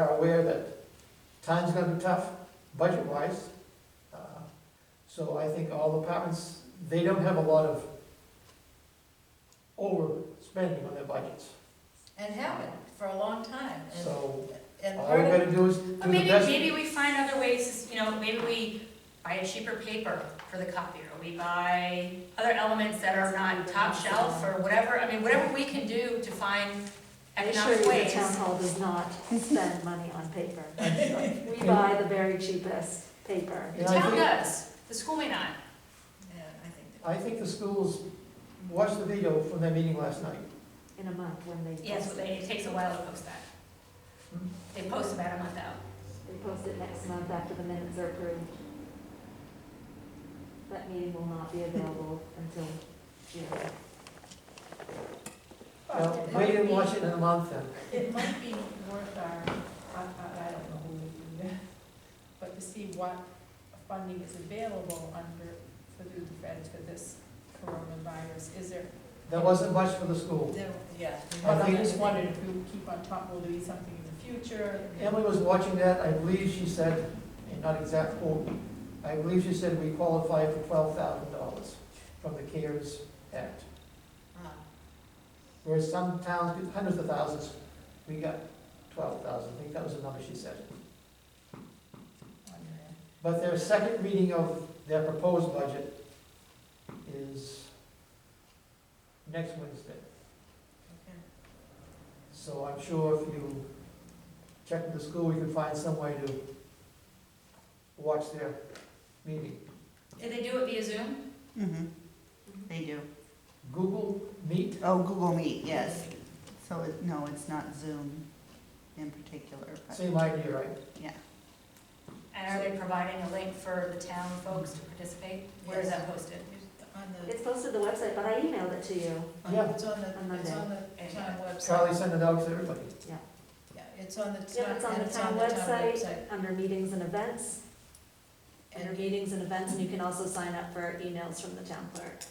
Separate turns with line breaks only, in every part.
aware that time's gonna be tough, budget-wise. Uh, So I think all departments, they don't have a lot of overspending on their budgets.
and haven't for a long time, and,
So
and
all we
part of,
gotta do is do
But
the
maybe,
best.
maybe we find other ways, you know, maybe we buy a cheaper paper for the copier, we buy other elements that are not top shelf or whatever, I mean, whatever we can do to find
Make sure
economic
the
ways.
town hall does not spend money on paper. We
Yeah.
buy the very cheapest paper.
The
And I
town
think-
does, the school may not.
yeah, I think that.
I think the schools watched the video from their meeting last night.
in a month when they
Yes,
post
but they-
it.
it takes a while to post that.
Hmm.
They post about a month out.
They post it next month after the minutes are approved. That meeting will not be available until June.
Well,
Oh,
They didn't watch it in a month then.
It might be worth our, I, I, I don't know who would do that, but to see what funding is available under, for the feds for this coronavirus, is there?
There wasn't much for the school.
There- Yeah.
But I just wondered if we keep on top, will there be something in the future?
Emily was watching that, I believe she said, and not exact quote, I believe she said we qualify for twelve thousand dollars from the CARES Act.
Ah,
Whereas some towns get hundreds of thousands, we got twelve thousand, I think that was the number she said. But their second reading of their proposed budget is next Wednesday.
okay.
So I'm sure if you check with the school, we can find some way to watch their meeting.
Did they do it via Zoom?
Mm-hmm, they do.
Google Meet,
Oh, Google Meet, yes. So, it- no, it's not Zoom in particular, but,
same idea, right?
yeah.
And are they providing a link for the town folks to participate? Where is that posted?
On the,
It's posted to the website, but I emailed it to you.
Yeah.
it's on
On
the, it's
Monday.
on the
And-
town website.
Charlie sent it out to everybody.
Yeah, it's on the
Yeah,
town,
it's on
and
the town
website.
website, under meetings and events, under
And-
meetings and events, and you can also sign up for emails from the town clerk.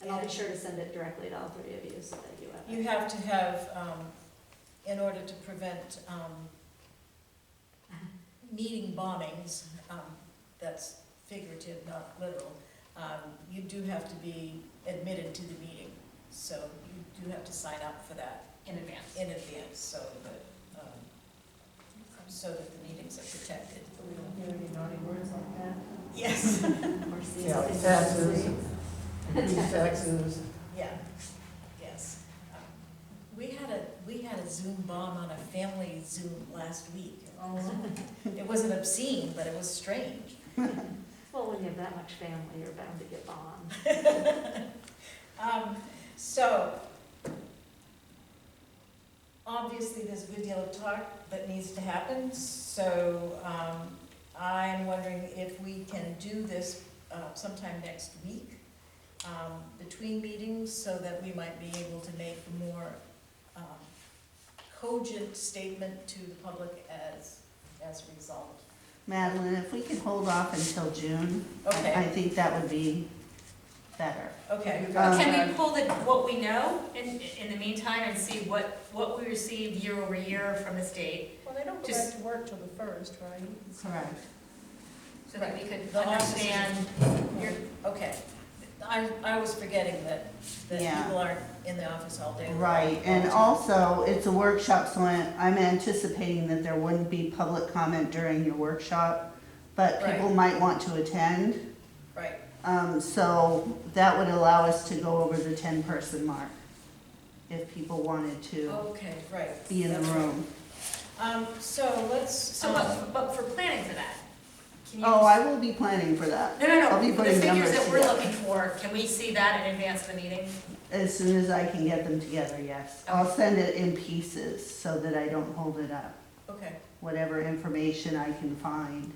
And I'll be sure to send it directly to all three of you so that you have it.
You have to have, um, in order to prevent, um, meeting bombings, um, that's figurative, not literal, um, you do have to be admitted to the meeting. So you do have to sign up for that
In advance.
in advance, so that, um, so that the meetings are protected.
So we don't hear any naughty words like that.
Yes.
Or see
Yeah,
if it's-
taxes. Increase taxes,
Yeah, yes. Um, We had a, we had a Zoom bomb on a family Zoom last week. It wasn't obscene, but it was strange.
Well, when you have that much family, you're bound to get bombed.
Um, So, obviously, there's a good deal of talk that needs to happen, so um, I'm wondering if we can do this uh, sometime next week, um, between meetings, so that we might be able to make a more um, cogent statement to the public as, as a result.
Madeline, if we could hold off until June, I
Okay,
think that would be better.
okay,
Um,
Can we pull the, what we know in, in the meantime and see what, what we received year over year from the state?
Well, they don't go back
Just-
to work till the first, right?
Correct.
So that we could
The office is-
understand,
you're, okay. I, I was forgetting that, that
Yeah.
people aren't in the office all day.
Right, and also, it's a workshop, so I- I'm anticipating that there wouldn't be public comment during your workshop, but people might want to attend.
Right,
Um, so that would allow us to go over the ten-person mark, if people wanted to
okay, right.
be in the
That's right.
room.
Um, so let's,
so,
so,
but, but for planning for that, can you?
Oh, I will be planning for that.
No, no,
I'll be
no, the
putting
figures
numbers
that we're
together.
looking for, can we see that in advance of the meeting?
As soon as I can get them together, yes. I'll send it in pieces so that I don't hold it up.
okay,
Whatever information I can find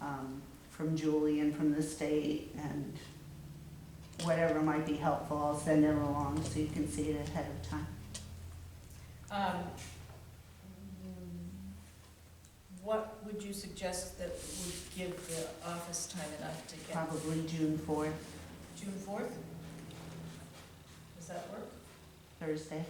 um, from Julie and from the state and whatever might be helpful, I'll send it along so you can see it ahead of time.
um, what would you suggest that would give the office time enough to get
Probably June fourth,
June fourth? Does that work?
Thursday.